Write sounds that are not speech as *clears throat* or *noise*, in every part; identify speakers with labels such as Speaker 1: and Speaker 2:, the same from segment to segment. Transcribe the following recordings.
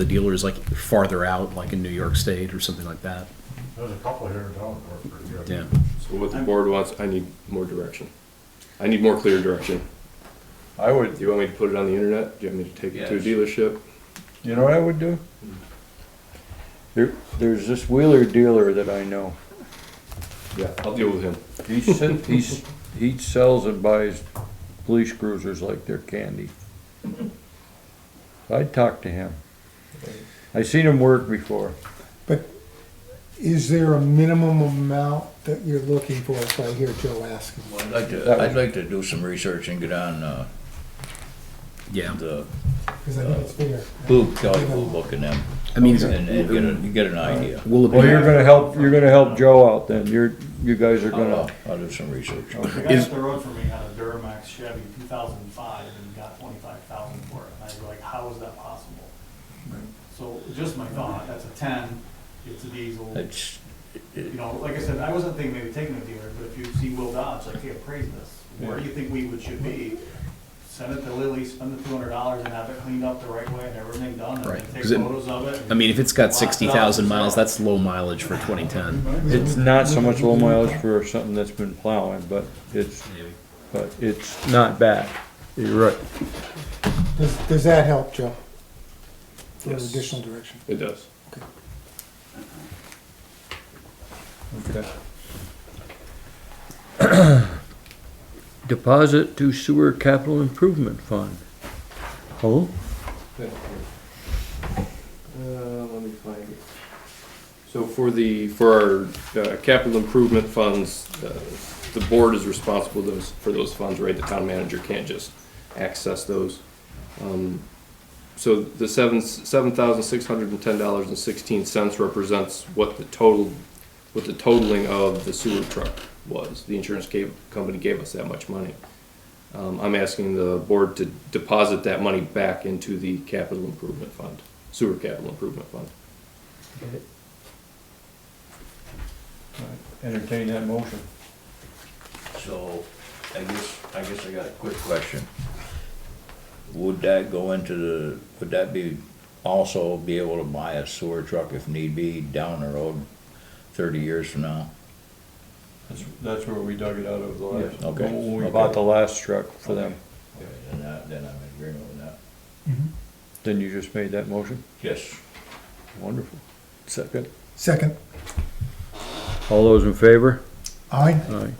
Speaker 1: the dealer is like farther out, like in New York State or something like that.
Speaker 2: There's a couple here in town that work pretty good.
Speaker 1: Yeah.
Speaker 3: So what the board wants, I need more direction. I need more clear direction.
Speaker 4: I
Speaker 3: Do
Speaker 4: would,
Speaker 3: you want me to put it on the internet? Do you want me to take it to a dealership?
Speaker 4: you know what I would do? There, there's this Wheeler dealer that I know.
Speaker 3: Yeah, I'll deal with him.
Speaker 4: He sits, he's, he sells and buys police cruisers like they're candy. I'd talk to him. I seen him work before.
Speaker 5: Is there a minimum amount that you're looking for, if I hear Joe asking?
Speaker 6: I'd like to, I'd like to do some research and get on, uh,
Speaker 1: Yeah.
Speaker 6: the
Speaker 5: Because I think it's fair.
Speaker 6: blue, Kelly Blue Book and them,
Speaker 1: I mean,
Speaker 6: and, and get a, get an idea.
Speaker 1: will it be?
Speaker 4: Well, you're gonna help, you're gonna help Joe out then, you're, you guys are
Speaker 6: I'll,
Speaker 4: gonna.
Speaker 6: uh, I'll do some research.
Speaker 2: The guy up the road from me had a Duramax Chevy two thousand and five and got twenty-five thousand for it, and I was like, how is that possible? So, just my thought, that's a ten, it's a diesel,
Speaker 6: It's,
Speaker 2: you know, like I said, I wasn't thinking maybe taking a dealer, but if you see Will Dodge, like, hey, appraise this, where do you think we would should be? Send it to Lily, spend the two hundred dollars and have it cleaned up the right way and everything done, and
Speaker 1: Right,
Speaker 2: then take
Speaker 1: 'cause it-
Speaker 2: photos of it.
Speaker 1: I mean, if it's got sixty thousand miles, that's low mileage for twenty ten.
Speaker 4: It's not so much low mileage for something that's been plowing, but it's, but it's not bad. You're right.
Speaker 5: Does, does that help, Joe? For
Speaker 3: Yes.
Speaker 5: additional direction?
Speaker 3: It does.
Speaker 4: Okay. *clears throat* Deposit to sewer capital improvement fund. Hello?
Speaker 3: Uh, let me find it. So for the, for our uh, capital improvement funds, uh, the board is responsible those, for those funds, right? The town manager can't just access those. Um, So the seven, seven thousand six hundred and ten dollars and sixteen cents represents what the total, what the totaling of the sewer truck was. The insurance gave, company gave us that much money. Um, I'm asking the board to deposit that money back into the capital improvement fund, sewer capital improvement fund.
Speaker 4: Entertain that motion.
Speaker 6: so, I guess, I guess I got a quick question. Would that go into the, would that be, also be able to buy a sewer truck if need be down the road thirty years from now?
Speaker 4: That's, that's where we dug it out of the
Speaker 6: last- Okay.
Speaker 4: When we bought the last truck for them,
Speaker 6: And that, then I'm in agreement with that.
Speaker 4: then you just made that motion?
Speaker 6: Yes.
Speaker 4: Wonderful. Second.
Speaker 5: Second,
Speaker 4: All those in favor?
Speaker 5: aye,
Speaker 4: Aye.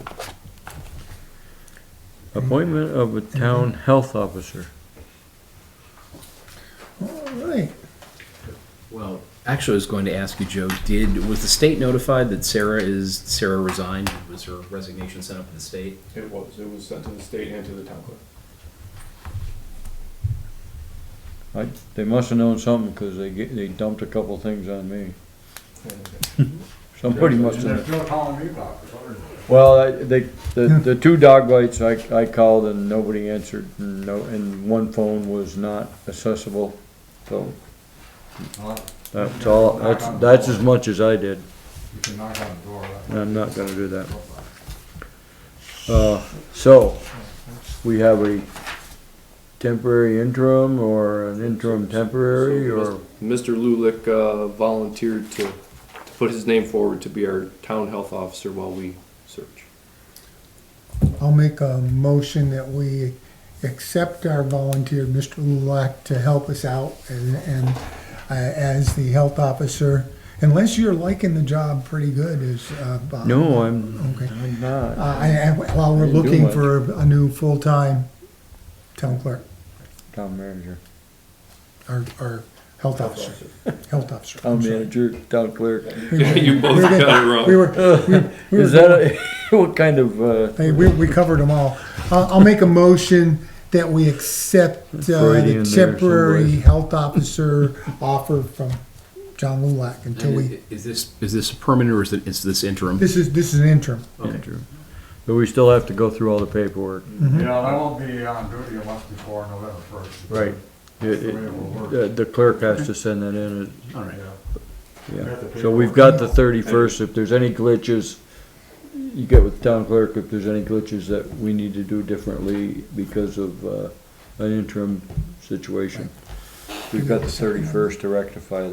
Speaker 4: Appointment of a town health officer.
Speaker 5: all right.
Speaker 1: Well, actually, I was going to ask you, Joe. Did was the state notified that Sarah is Sarah resigned? Was her resignation sent up to the state?
Speaker 3: It was, it was sent to the state and to the town clerk.
Speaker 4: I, they must've known something, cause they ge- they dumped a couple things on me. Somebody must've.
Speaker 2: And they're still calling me about it, what is it?
Speaker 4: Well, I- they, the, the two dog bites, I, I called and nobody answered, and no, and one phone was not accessible, so. That's all, that's, that's as much as I did,
Speaker 2: You can knock on the door, right?
Speaker 4: and I'm not gonna do that. Uh, so, we have a temporary interim or an interim temporary or,
Speaker 3: Mr. Lulick uh, volunteered to, to put his name forward to be our town health officer while we search.
Speaker 4: *laughs*
Speaker 5: I'll make a motion that we accept our volunteer, Mr. Lulak, to help us out and, and uh, as the health officer, unless you're liking the job pretty good as, uh, Bob.
Speaker 4: no, I'm,
Speaker 5: Okay.
Speaker 4: I'm not.
Speaker 5: Uh, and- and while we're
Speaker 4: I didn't do
Speaker 5: looking
Speaker 4: much.
Speaker 5: for a new full-time town clerk,
Speaker 4: Town manager,
Speaker 5: or, or health officer, health officer. I'm
Speaker 4: town
Speaker 5: sorry.
Speaker 4: manager, town clerk.
Speaker 3: You both got it wrong.
Speaker 5: We were, we were.
Speaker 4: Is that, a- *laughs* what kind of, uh?
Speaker 5: Hey, we, we covered them all. I'll, I'll make a motion that we accept uh,
Speaker 4: Brady in there
Speaker 5: the temporary
Speaker 4: someplace.
Speaker 5: health officer offer from John Lulak until we,
Speaker 1: Is this is this permanent or is it is this interim?
Speaker 5: this is, this is an interim.
Speaker 4: Andrew. But we still have to go through all the paperwork.
Speaker 2: Yeah, and I won't be on duty unless before November first.
Speaker 4: It- it- uh, The clerk has to send that in, uh,
Speaker 1: All right.
Speaker 4: yeah. So we've got the thirty-first, if there's any glitches, you get with town clerk, if there's any glitches that we need to do differently because of, uh, an interim situation. We've got the thirty-first to rectify